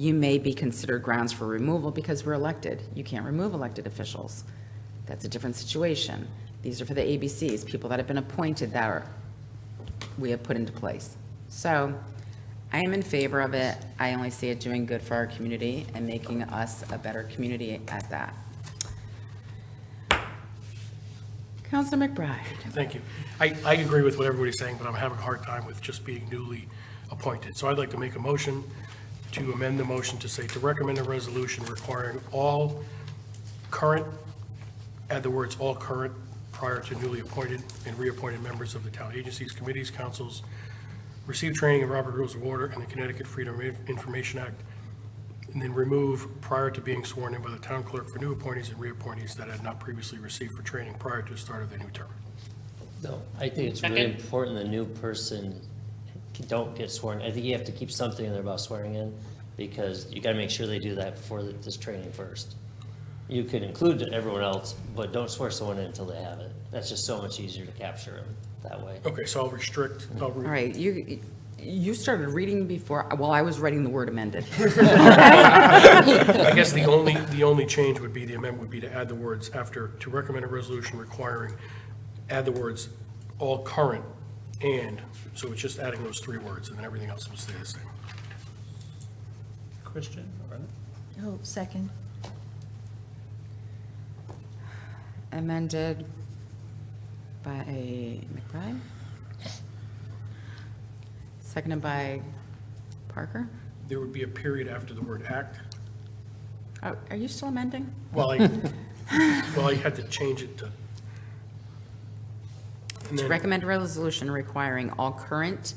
you may be considered grounds for removal because we're elected. You can't remove elected officials. That's a different situation. These are for the ABCs, people that have been appointed that are, we have put into place. So I am in favor of it. I only see it doing good for our community and making us a better community at that. Counselor McBride, Thank you. I, I agree with what everybody's saying, but I'm having a hard time with just being newly appointed. So I'd like to make a motion to amend the motion to say to recommend a resolution requiring all current, add the words all current prior to newly appointed and reappointed members of the town agencies, committees, councils, receive training in Robert Rules of Order and the Connecticut Freedom of Information Act, and then remove prior to being sworn in by the town clerk for new appointees and reappointees that had not previously received for training prior to the start of their new term. No, I think it's really important the new person don't get sworn. I think you have to keep something in there about swearing in, because you gotta make sure they do that before the- this training first. You could include everyone else, but don't swear someone in until they have it. That's just so much easier to capture them that way. Okay, so I'll restrict, I'll, all re- right, you, you started reading before, well, I was writing the word amended. I guess the only, the only change would be, the amendment would be to add the words after, to recommend a resolution requiring, add the words all current and, so it's just adding those three words, and then everything else will stay the same. Christian, all right? Oh, second. amended by McBride. Seconded by Parker. There would be a period after the word act. Are are you still amending? Well, I, well, I had to change it to. and To then- recommend a resolution requiring all current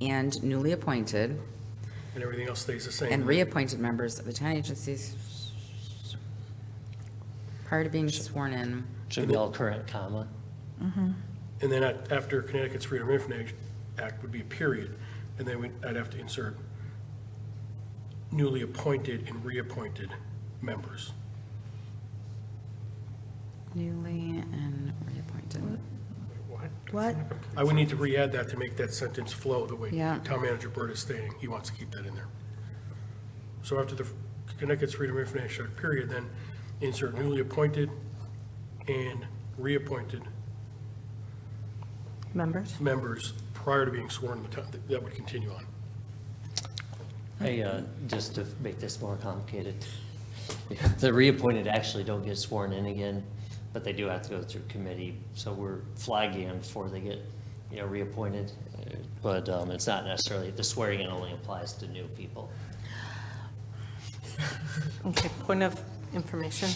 and newly appointed And everything else stays the same. Mm-hmm. and reappointed members of the town agencies prior to being sworn in. Should be all current, comma. And then at- after Connecticut's Freedom of Information Act would be a period, and then we'd- I'd have to insert newly appointed and reappointed members. Newly and reappointed. What? I would need to re-add that to make that sentence flow the way Yeah. Town Manager Burt is stating, he wants to keep that in there. So after the Connecticut's Freedom of Information Act period, then insert newly appointed and reappointed Members? members prior to being sworn in the town, that would continue on. Hey, uh, just to make this more complicated, the reappointed actually don't get sworn in again, but they do have to go through committee, so we're flagging them before they get, you know, reappointed. Uh, But um, it's not necessarily, the swearing in only applies to new people. Okay, point of information.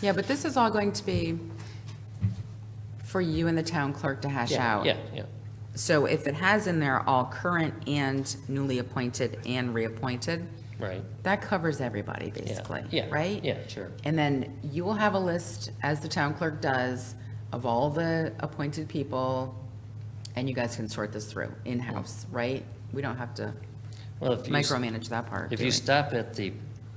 Yeah, but this is all going to be for you and the town clerk to hash out. Yeah, yeah. So if it has in there all current and newly appointed and reappointed, Right. that covers everybody yeah, basically, yeah, right? Yeah, sure. And then you will have a list, as the town clerk does, of all the appointed people, and you guys can sort this through in-house, right? We don't have to Well, if you s- micromanage that part. If do you we? stop at the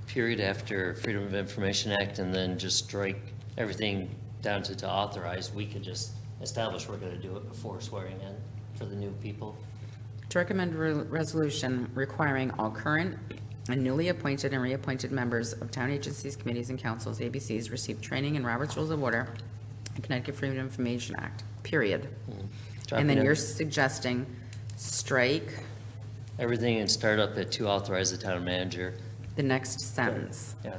period after Freedom of Information Act and then just strike everything down to to authorize, we could just establish we're gonna do it before swearing in for the new people. To recommend a re- resolution requiring all current and newly appointed and reappointed members of town agencies, committees, and councils, ABCs, receive training in Robert's Rules of Order and Connecticut Freedom of Information Act, period. And Dropping then Hmm. it. you're suggesting strike Everything and start up at to authorize the town manager. the next sentence. Yeah,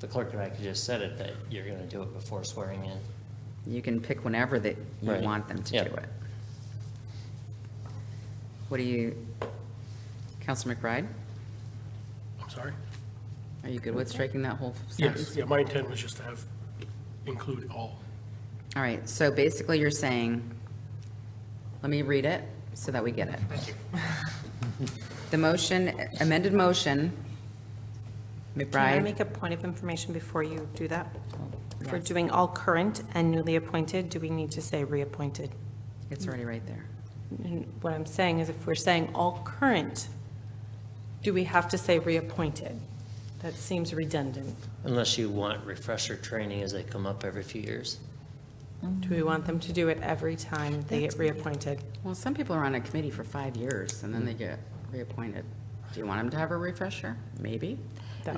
the clerk and I could just set it that you're gonna do it before swearing in. You can pick whenever that you Right. want them to Yeah. do it. What do you, Counsel McBride, I'm sorry? are you good with striking that whole sentence? Yes, yeah, my intent was just to have, include all. All right, so basically you're saying, let me read it so that we get it. The motion, amended motion, Can I McBride, make a point of information before you do that? For doing all current and newly appointed, do we need to say reappointed? it's already right there. And What I'm saying is if we're saying all current, do we have to say reappointed? That seems redundant. Unless you want refresher training as they come up every few years. Do we want them to do it every time they get reappointed? Well, some people are on a committee for five years and then they get reappointed. Do you want them to have a refresher? Maybe.